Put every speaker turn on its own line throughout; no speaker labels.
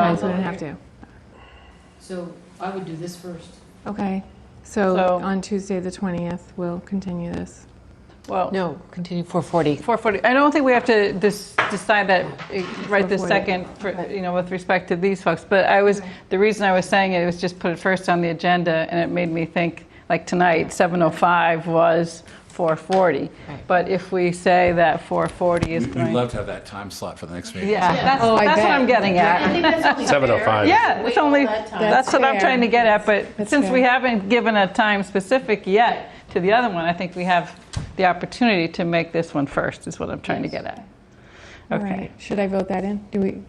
Oh, so we don't have to.
So I would do this first.
Okay. So
So-
on Tuesday, the 20th, we'll continue this.
Well,
No, continue 440.
440, I don't think we have to dis- decide that eh, right this
440,
second, for- you know, with respect to these folks, but I was, the reason I was saying it was just put it first on the agenda, and it made me think, like tonight, 7:05 was 440. But if we say that 440 is
We'd
going, yeah,
love to have that time slot for the next meeting.
that's that's
I
what
bet.
I'm getting at.
I think that's only fair.
7:05.
Yeah,
Wait
it's
all
only,
that time.
that's what I'm
That's
trying to get at,
That's
but since we
fair.
haven't given a time specific yet to the other one, I think we have the opportunity to make this one first, is what I'm trying to get at.
All
Okay.
right. Should I vote that in? Do we, do we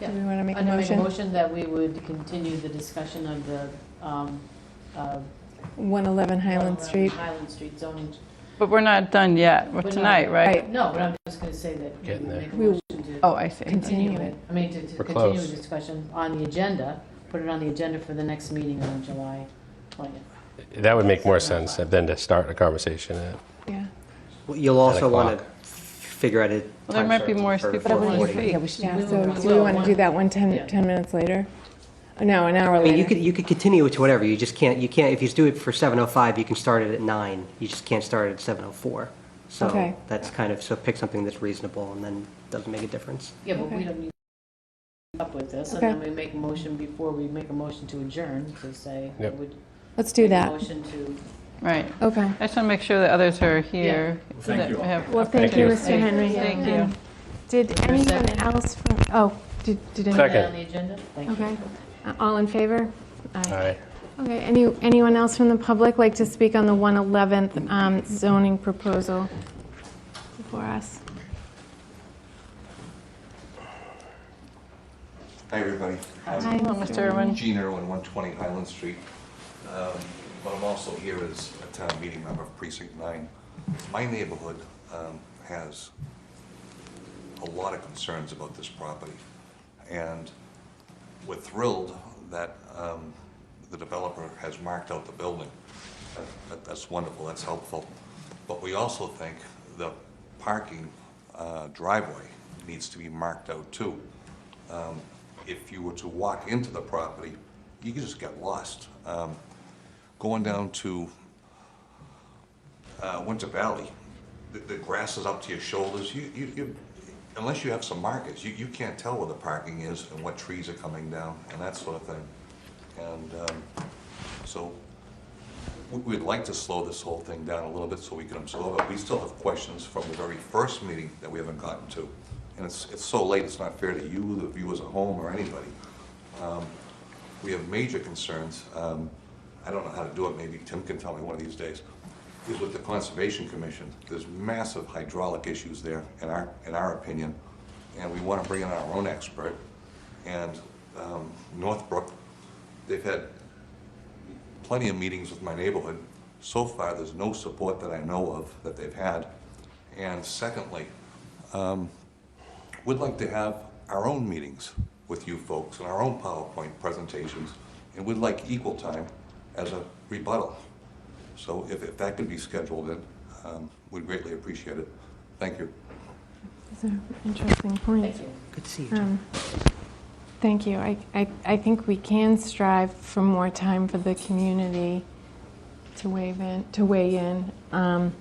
Yeah.
want to make a
I'm gonna make a
motion?
motion that we would continue the discussion of the, um, uh.
111 Highland
uh,
Street.
Highland Street zoning.
But we're not done yet,
We're
with
not.
tonight, right?
Right.
No, but I'm just gonna say that we
Getting
would
there.
make a
We-
motion
Oh,
to
I see.
continue it. I mean, to, to
We're
continue the
close.
discussion on the agenda, put it on the agenda for the next meeting on July twentieth.
That would make more sense than to start a conversation at
Yeah.
Well, You'll also want to
o'clock.
figure out a.
There
time
might be
certain
more
for
people.
four
wouldn't
forty.
Yeah, we should,
Yeah.
we
So
will-
do we
we
want to
will-
do that one 10,
Yeah.
10 minutes later? No, an hour
I mean, you
later.
could, you could continue it to whatever, you just can't, you can't, if you do it for 7:05, you can start it at 9, you just can't start it at 7:04.
Okay.
So that's kind of, so pick something that's reasonable and then doesn't make a difference.
Yeah, but we
Okay.
don't need to up with this, and
Okay.
then we make a motion before we make a motion to adjourn, to say, we
Yep.
would
Let's do
make a
that.
motion to
Right.
Okay.
I just want to make sure that others are here.
Thank
that
you
we
all.
have-
Well, thank
Thank you,
you,
you.
Mr.
Mr.
Henry.
Henry. Thank you.
And Did anyone
second?
else from, oh, did, did anyone?
put it
Second.
on the agenda? Thank you.
Okay. Uh, All in favor?
Aye.
Okay, any, anyone else from the public like to speak on the 111th um, zoning proposal before us?
Hi, everybody.
Hi,
Hello, Mr. Irwin.
Gene Irwin, 120 Highland Street. Um, But I'm also here as a town meeting member of Precinct 9. My neighborhood um, has a lot of concerns about this property. And we're thrilled that um, the developer has marked out the building. That- that- That's wonderful, that's helpful. But we also think the parking uh, driveway needs to be marked out too if you were to walk into the property, you could just get lost. Um, Going down to uh, Winter Valley, the- the grass is up to your shoulders, you, you- you, unless you have some markers, you, you can't tell where the parking is and what trees are coming down and that sort of thing. And um, so we- we'd like to slow this whole thing down a little bit so we can absorb it. We still have questions from the very first meeting that we haven't gotten to. And it's, it's so late, it's not fair to you, the viewers at home, or anybody. Um, We have major concerns. Um, I don't know how to do it, maybe Tim can tell me one of these days, is with the Conservation Commission. There's massive hydraulic issues there, in our, in our opinion, and we want to bring in our own expert. And um, Northbrook, they've had plenty of meetings with my neighborhood. So far, there's no support that I know of that they've had. And secondly, um, we'd like to have our own meetings with you folks and our own PowerPoint presentations, and we'd like equal time as a rebuttal. So if, if that could be scheduled in, um, we'd greatly appreciate it. Thank you.
That's an interesting point.
Thank you.
Good to see you.
Um, Thank you. I, I, I think we can strive for more time for the community to weigh in, to weigh in. Um,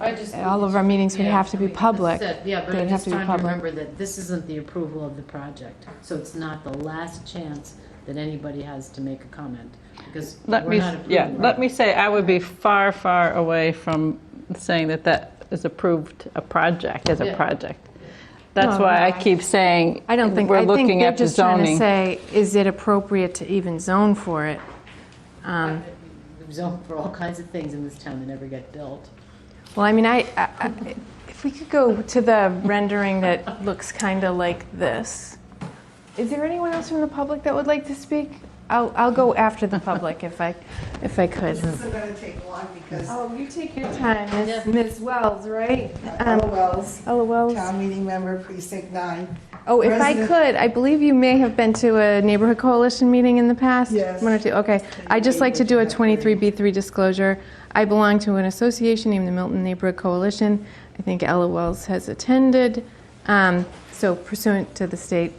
I just-
All of our meetings would
Yeah,
have to
I
be
mean, that's
public.
it. Yeah, but
They'd
I'm
have
just
to be
trying to
public.
remember that this isn't the approval of the project, so it's not the last chance that anybody has to make a comment, because we're
Let me,
not approving.
yeah,
it.
let me say, I would be far, far away from saying that that is approved a project, as a
Yeah.
project. That's
No, no,
why I
I-
keep saying,
I don't think,
we're
I think
looking
they're
at the
just trying to
zoning.
say, is it appropriate to even zone for it?
We've zoned for all kinds of things in this town that never get built.
Well, I mean, I, I- I- if we could go to the rendering that looks kind of like this. Is there anyone else from the public that would like to speak? I'll, I'll go after the public if I, if I could.
This isn't gonna take long because
Oh, you take your time, Ms. Ms. Wells, right?
Ella Wells,
Ella Wells.
town meeting member, precinct nine.
Oh, if I
President-
could, I believe you may have been to a neighborhood coalition meeting in the past.
Yes.
One or two, okay. I just like to do a 23B3 disclosure. I belong to an association named the Milton Neighborhood Coalition. I think Ella Wells has attended. Um, So pursuant to the state